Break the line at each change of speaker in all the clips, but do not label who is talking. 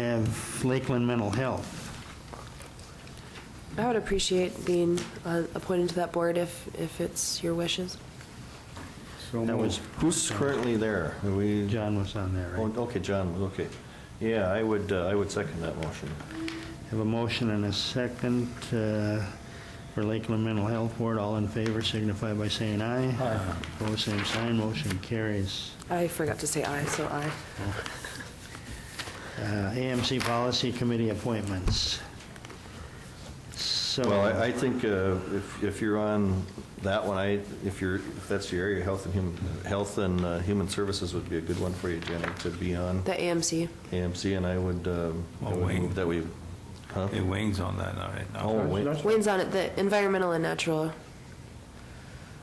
of Lakeland Mental Health.
I would appreciate being uh, appointed to that board if, if it's your wishes.
That was, who's currently there? Are we?
John was on there,
Oh,
right?
Okay, John, okay. Yeah, I would, uh, I would second that motion.
Have a motion and a second uh, for Lakeland Mental Health Board. All in favor signify by saying aye. Aye. Opposed, same sign, motion carries.
I forgot to say aye, so aye.
Uh, AMC Policy Committee appointments. So...
Well, I, I think uh, if, if you're on that one, I, if you're, if that's your area, Health and Human, Health and uh, Human Services would be a good one for you, Jenny, to be on
The AMC,
AMC, and I would, um, I
Oh,
would
wait.
move that we, huh?
Hey, Wayne's on that, all right.
Oh, wait,
Wayne's on it, the environmental and natural,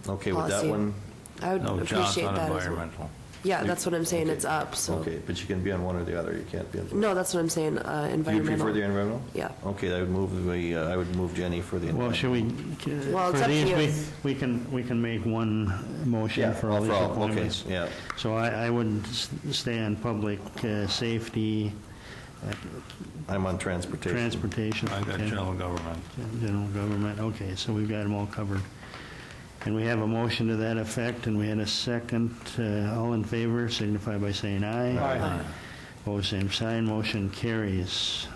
okay, with that
policy.
one,
I
Oh,
would
No, John's
appreciate
on
that as well.
environmental.
Yeah, that's what I'm saying,
Okay.
it's up, so.
okay, but you can be on one or the other, you can't be on both.
No, that's what I'm saying, uh,
You
environmental.
prefer the environmental?
Yeah.
Okay, I would move, the, uh, I would move Jenny for the
Well,
environmental.
should we, uh,
Well, it's
for
up to
these, we-
you.
we can, we can make one motion
Yeah,
for all these
for all, okay,
appointments.
yeah.
So I, I would s- stay on public uh, safety,
I'm on transportation.
transportation.
I got
okay.
general government.
General government, okay, so we've got them all covered. And we have a motion to that effect, and we had a second. Uh, All in favor signify by saying aye. Aye. Pose same sign, motion carries.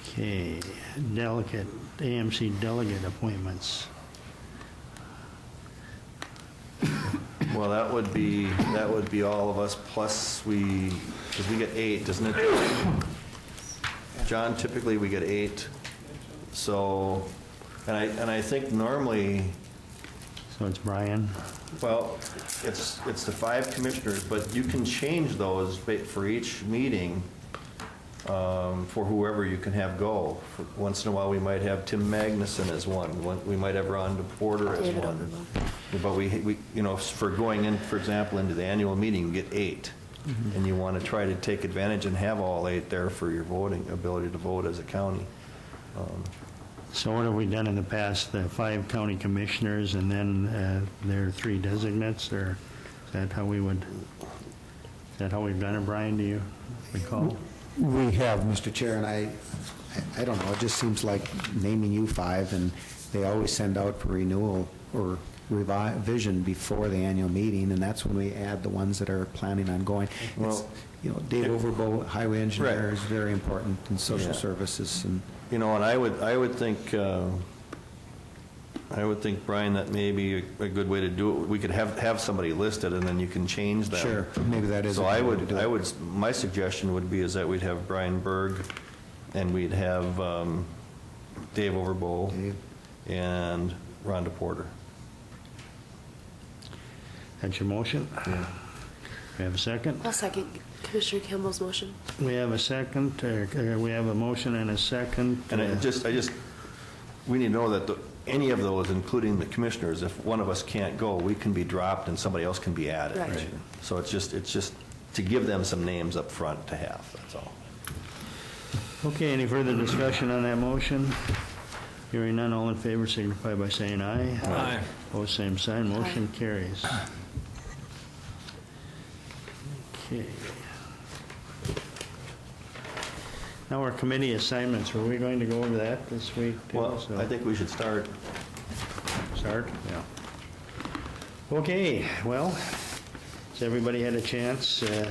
Okay, delegate, AMC delegate appointments.
Well, that would be, that would be all of us, plus we, because we get eight, doesn't it? John, typically, we get eight, so, and I, and I think normally,
So it's Brian.
well, it's, it's the five commissioners, but you can change those ba- for each meeting um, for whoever you can have go. For- Once in a while, we might have Tim Magnuson as one, one- we might have Rhonda Porter as
David
one. But we, we, you know, for going in, for example, into the annual meeting, you get eight. And you want to try to take advantage and have all eight there for your voting, ability to vote as a county.
So what have we done in the past, the five county commissioners and then uh, their three designates, or is that how we would, is that how we've done it, Brian, do you recall?
We have, Mr. Chair, and I, I- I don't know, it just seems like naming you five, and they always send out for renewal or revi- vision before the annual meeting, and that's when we add the ones that are planning on going. It's,
Well-
You know, Dave Overbo, highway engineer,
Right.
is very important, and social
Yeah.
services, and
You know, and I would, I would think, uh, I would think, Brian, that may be a good way to do it. We could have, have somebody listed, and then you can change them.
Sure, maybe that is a
So I
good way to
would,
do it.
I would, my suggestion would be is that we'd have Brian Berg, and we'd have um, Dave Overbowl,
Dave.
and Rhonda Porter.
That's your motion? We have a second?
I'll second Commissioner Campbell's motion.
We have a second, uh, uh, we have a motion and a second.
And I
uh,
just, I just, we need to know that the- any of those, including the commissioners, if one of us can't go, we can be dropped and somebody else can be added.
Right. Right.
So it's just, it's just to give them some names up front to have, that's all.
Okay, any further discussion on that motion? Hearing none, all in favor signify by saying aye.
Aye.
Pose same sign, motion carries. Okay. Now our committee assignments, were we going to go over that this week? too?
Well,
So-
I think we should start.
Start? Yeah. Okay, well, has everybody had a chance, uh,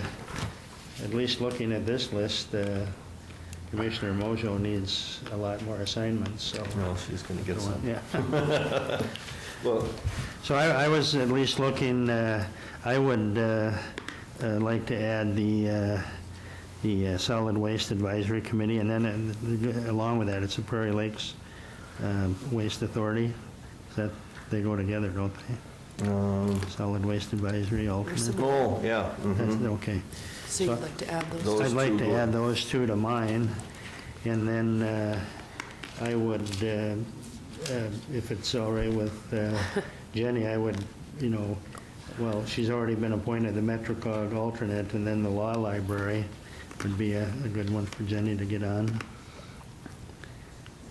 at least looking at this list, uh, Commissioner Mojo needs a lot more assignments, so.
No, she's going to get some.
Yeah.
Well,
So I I was at least looking, uh, I would uh, uh, like to add the, uh, the uh, Solid Waste Advisory Committee, and then uh, along with that, it's the Prairie Lakes um, Waste Authority, that, they go together, don't they?
um,
Solid Waste Advisory alternate.
some-
oh, yeah. mhm.
That's- Okay.
So you'd like to add those?
Those
I'd like
two
to
go-
add those two to mine, and then uh, I would, uh, uh, if it's all right with uh, Jenny, I would, you know, well, she's already been appointed the MetroCog alternate, and then the Law Library would be a a good one for Jenny to get on,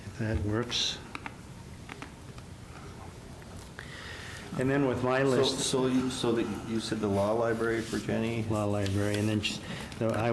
if that works. And then with my
So,
list,
so you, so that you said the law library for Jenny?
Law Library, and then she- though I